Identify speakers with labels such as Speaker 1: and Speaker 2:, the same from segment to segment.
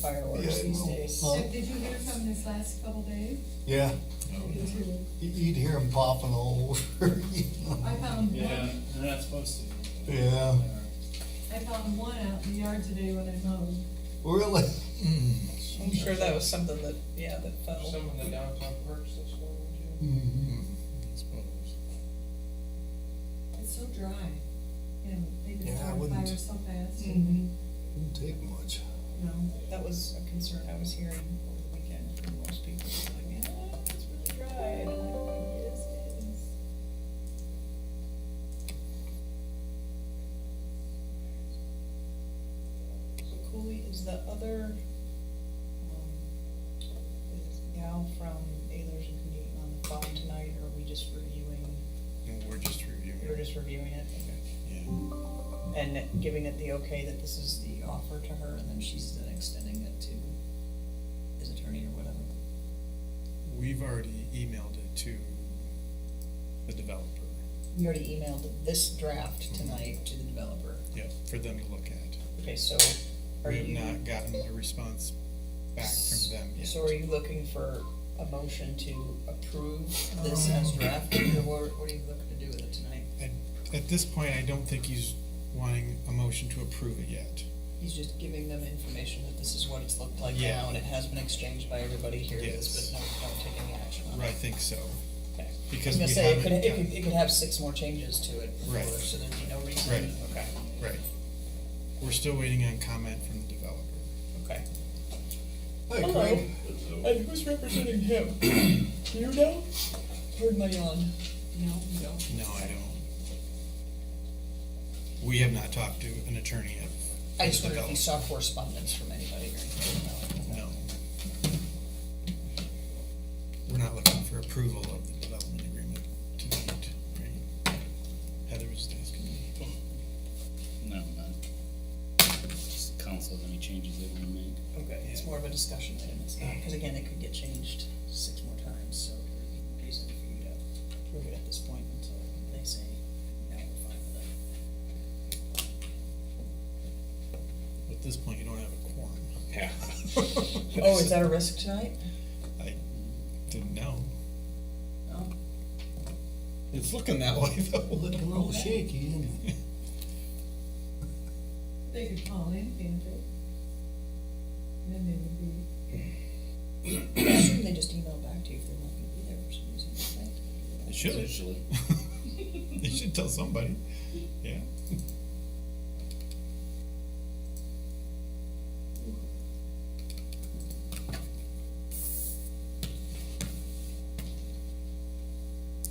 Speaker 1: fireworks
Speaker 2: Yeah,
Speaker 1: these
Speaker 2: well,
Speaker 1: days.
Speaker 2: well,
Speaker 3: Did you hear from this last couple days?
Speaker 2: Yeah, you- you'd hear them popping all over, you know.
Speaker 3: I found
Speaker 4: Yeah,
Speaker 3: one,
Speaker 4: they're not supposed to.
Speaker 2: Yeah.
Speaker 3: I found one out in the yard today when I mowed.
Speaker 2: Really? Mm-hmm.
Speaker 1: I'm sure that was something that, yeah, that fell.
Speaker 5: Some of the downtown parks this morning,
Speaker 2: Mhm.
Speaker 3: It's so dry. You know, they
Speaker 2: Yeah, I
Speaker 3: just start
Speaker 2: wouldn't.
Speaker 3: fire so fast.
Speaker 1: Mhm.
Speaker 2: Wouldn't take much.
Speaker 3: No.
Speaker 1: Um, That was a concern I was hearing over the weekend from most people, like, yeah, it's really dry, and I'm like, yes, it is. So Cooley is the other, um, is the gal from Ayers and Canute on the phone tonight, or are we just reviewing?
Speaker 6: We're just reviewing.
Speaker 1: You're just reviewing it?
Speaker 6: Yeah.
Speaker 1: And giving it the okay that this is the offer to her, and then she's then extending it to his attorney or whatever.
Speaker 6: We've already emailed it to the developer,
Speaker 1: We already emailed this
Speaker 6: Mm-hmm.
Speaker 1: draft tonight to the developer.
Speaker 6: yeah, for them to look at.
Speaker 1: Okay, so are
Speaker 6: We
Speaker 1: you?
Speaker 6: have not gotten a response back from them yet.
Speaker 1: So are you looking for a motion to approve this as drafted, or what what are you looking to do with it tonight?
Speaker 6: At this point, I don't think he's wanting a motion to approve it yet.
Speaker 1: He's just giving them information that this is what it's looked like
Speaker 6: Yeah.
Speaker 1: now, and it has been exchanged by everybody here,
Speaker 6: Yes.
Speaker 1: but no, don't take any action on it.
Speaker 6: I think so,
Speaker 1: Okay. I
Speaker 6: because
Speaker 1: was gonna
Speaker 6: we haven't.
Speaker 1: say, it could, it
Speaker 6: gotten-
Speaker 1: could, it could have six more changes to it before,
Speaker 6: Right.
Speaker 1: so there'd be no reason.
Speaker 6: Right.
Speaker 1: Okay,
Speaker 6: Right. We're still waiting on comment from the developer.
Speaker 1: okay.
Speaker 2: Hey, Craig,
Speaker 1: and who's representing him? Do you know? Heard my yawn. No, no.
Speaker 6: No, I don't. We have not talked to an attorney yet.
Speaker 1: I just wondered if you saw correspondence from anybody or anything.
Speaker 6: No. We're not looking for approval of the development agreement tonight, right? Heather was asking me.
Speaker 4: No, not. Just council, any changes they wanna make.
Speaker 1: Okay, it's more of a discussion item, it's not, because again, it could get changed six more times, so there'd be no reason for you to prove it at this point until they say, no, we're fine with it.
Speaker 6: At this point, you don't have a quorum.
Speaker 4: Yeah.
Speaker 1: Oh, is that a risk tonight?
Speaker 6: I didn't know.
Speaker 1: No.
Speaker 6: It's looking that way though.
Speaker 2: looking a little shaky, isn't it?
Speaker 3: They could call in, can't they? And Then they would be,
Speaker 1: I assume they just email back to you if they're not gonna be there for some reason, right?
Speaker 6: It should,
Speaker 4: Usually.
Speaker 6: it should tell somebody, yeah.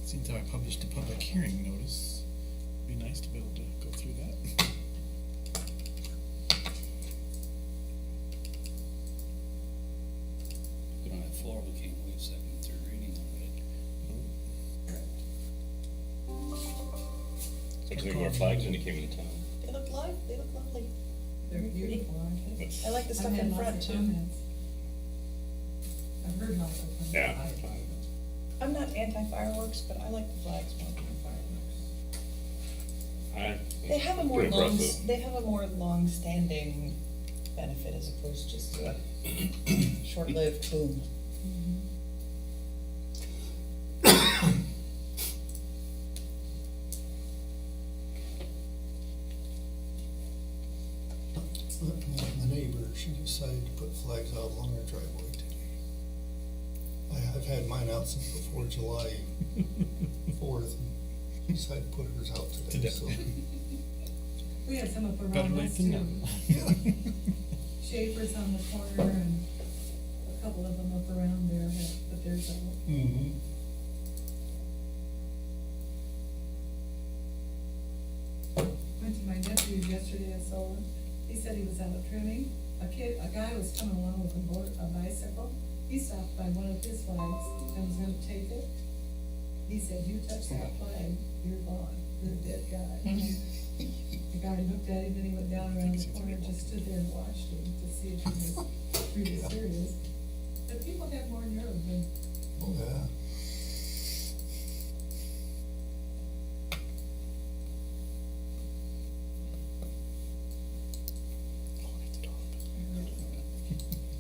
Speaker 6: Seems how I published a public hearing notice, be nice to be able to go through that.
Speaker 4: We don't have floor, we can't waive second, and third reading already.
Speaker 7: Looks like more flags when you came into town.
Speaker 1: They look live, they look lovely.
Speaker 3: they're beautiful, aren't they?
Speaker 1: I like the stuff
Speaker 3: I've had
Speaker 1: in
Speaker 3: lots
Speaker 1: front
Speaker 3: of
Speaker 1: too.
Speaker 3: comments. I've heard lots of comments.
Speaker 7: Yeah.
Speaker 1: I'm not anti-fireworks, but I like the flags more than the fireworks.
Speaker 7: I-
Speaker 1: They have a more
Speaker 7: Pretty
Speaker 1: long,
Speaker 7: impressive.
Speaker 1: they have a more long-standing benefit as opposed to just to a short-lived boom.
Speaker 2: Looking at my neighbor, she decided to put flags out along her driveway today. I- I've had mine out since before July fourth, and decided to put hers out today,
Speaker 6: Today.
Speaker 2: so.
Speaker 3: We had some up
Speaker 6: Better
Speaker 3: around
Speaker 6: late
Speaker 3: us
Speaker 6: than
Speaker 3: too.
Speaker 6: never.
Speaker 3: Schaefer's on the corner and a couple of them up around there, but- but there's a
Speaker 2: Mm-hmm.
Speaker 3: Went to my nephew's yesterday, I saw him, he said he was out trimming, a kid, a guy was coming along with a board, a bicycle, he stopped by one of his flags and was gonna take it. He said, you touch that flag, you're gone, you're a dead guy. The guy looked at him, then he went down around the corner, just stood there and watched him to see if he was